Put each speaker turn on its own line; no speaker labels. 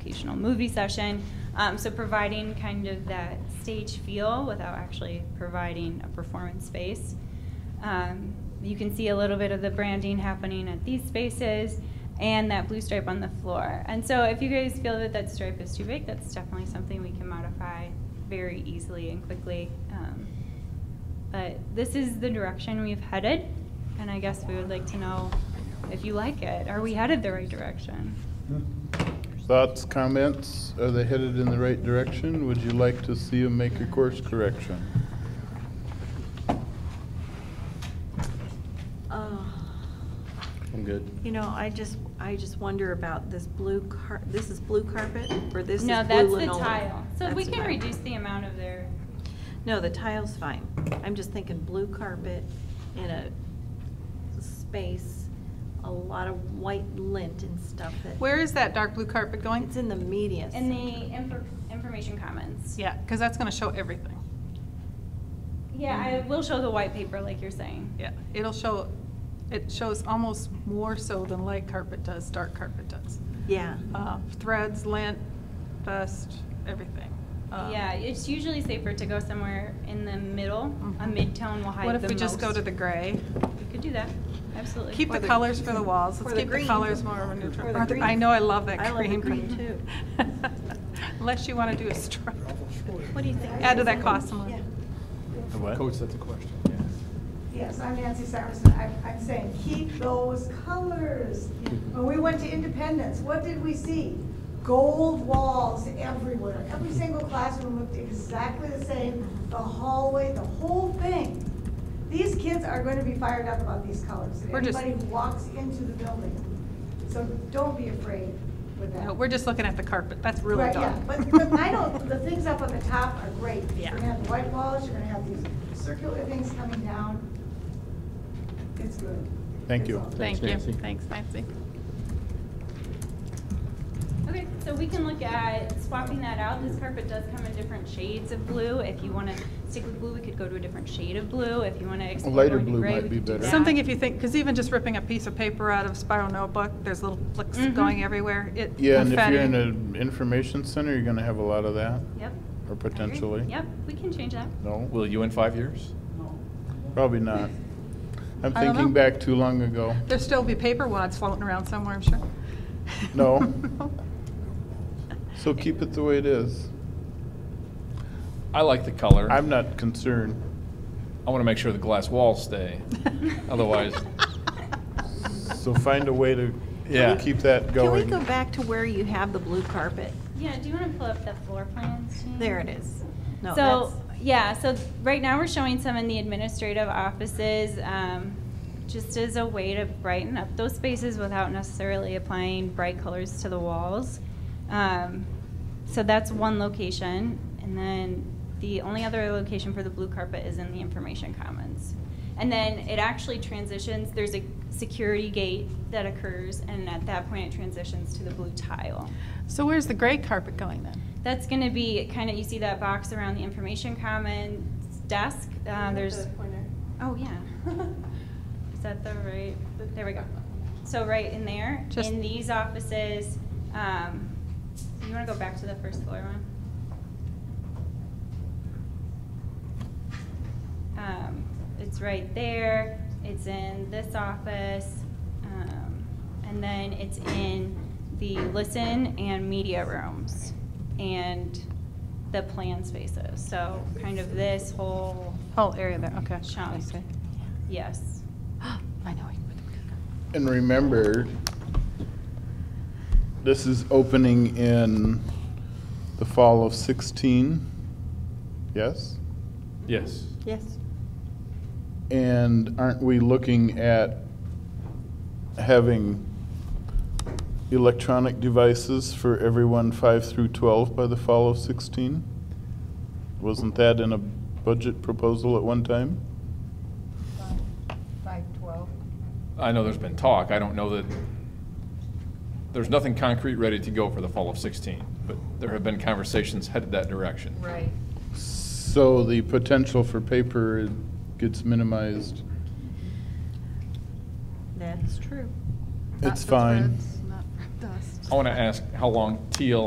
educational movie session. Um, so providing kind of that stage feel without actually providing a performance space. Um, you can see a little bit of the branding happening at these spaces and that blue stripe on the floor. And so if you guys feel that that stripe is too big, that's definitely something we can modify very easily and quickly. Um, but this is the direction we've headed, and I guess we would like to know if you like it. Are we headed the right direction?
Thoughts, comments? Are they headed in the right direction? Would you like to see them make a course correction?
I'm good.
Uh, You know, I just, I just wonder about this blue car, this is blue carpet, or this is blue
no,
linoleum?
that's the tile. So we
That's
can
tile.
reduce the amount of their.
No, the tile's fine. I'm just thinking blue carpet in a space, a lot of white lint and stuff that.
Where is that dark blue carpet going?
It's in the media.
In
center.
the infor- information comments.
Yeah, because that's going to show everything.
Yeah, I will show the white paper like you're saying.
Yeah, it'll show, it shows almost more so than light carpet does, dark carpet does.
Yeah.
Uh, Threads, lint, dust, everything. Uh,
yeah, it's usually safer to go somewhere in the middle. A
Mhm.
mid-tone will hide
What if
the
we just go
most.
to the gray?
We could do that, absolutely.
Keep
Or
the
the-
colors for the walls,
or
let's
the
keep the
green.
colors more of a
Or
neutral.
the
Or the- I
green.
know, I love that
I
green.
love the green, too.
Unless you want to do a stripe.
What do you think?
Add to that cost some more.
Yeah.
What?
that's a question.
Yes, I'm Nancy Saracen. I- I'm saying, keep those colors. When we went to Independence, what did we see? Gold walls everywhere. Every single classroom looked exactly the same, the hallway, the whole thing. These kids are going to be fired up about these colors.
We're just-
Anybody who walks into the building. So don't be afraid with that.
No, We're just looking at the carpet, that's really
Right,
dark.
yeah, But, but I don't, the things up on the top are great. You're gonna
Yeah.
have the white walls, you're gonna have these circular things coming down. It's good.
Thank
It's
you.
all good.
Thank you,
Nancy.
thanks Nancy.
Okay, so we can look at swapping that out. This carpet does come in different shades of blue. If you want to stick with blue, we could go to a different shade of blue. If you want to explore
lighter
going to
blue
gray,
might
we
be
could do
better.
that.
Something if you think, because even just ripping a piece of paper out of a spiral notebook, there's little flicks
Mhm.
going everywhere. It-
Yeah, and if
confetti.
you're in an information center, you're gonna have a lot of that,
Yep. I
or
agree.
potentially.
Yep, we can change that.
No,
Will you in five years?
probably not. I'm
I don't
thinking
know.
back too long ago.
There'll still be paper wads floating around somewhere, I'm sure.
No. So keep it the way it is.
I like the color.
I'm not concerned.
I want to make sure the glass walls stay. Otherwise-
So find a way to
Yeah.
keep that
Can we
going.
go back to where you have the blue carpet?
Yeah, do you want to pull up the floor plans, Jean?
There it is. No,
so
that's-
yeah, so right now we're showing some in the administrative offices, um, just as a way to brighten up those spaces without necessarily applying bright colors to the walls. Um, so that's one location, and then the only other location for the blue carpet is in the information commons. And then it actually transitions. There's a security gate that occurs, and at that point it transitions to the blue tile.
So where's the gray carpet going then?
That's going to be kind of, you see that box around the information commons desk? Uh, There's, oh, yeah. Is that the right, there we go. So right in there,
Just-
in these offices, um, you want to go back to the first floor one? Um, It's right there, it's in this office, um, and then it's in the listen and media rooms and the plan spaces. So kind of this whole,
Whole area there, okay.
Shall we
I
say?
see.
yes.
I know.
And remember, this is opening in the fall of 16, yes?
Yes.
Yes.
And aren't we looking at having electronic devices for everyone 5 through 12 by the fall of 16? Wasn't that in a budget proposal at one time?
I know there's been talk. I don't know that, there's nothing concrete ready to go for the fall of 16, but there have been conversations headed that direction.
Right.
So the potential for paper gets minimized.
That's true.
It's fine.
I want to ask how long teal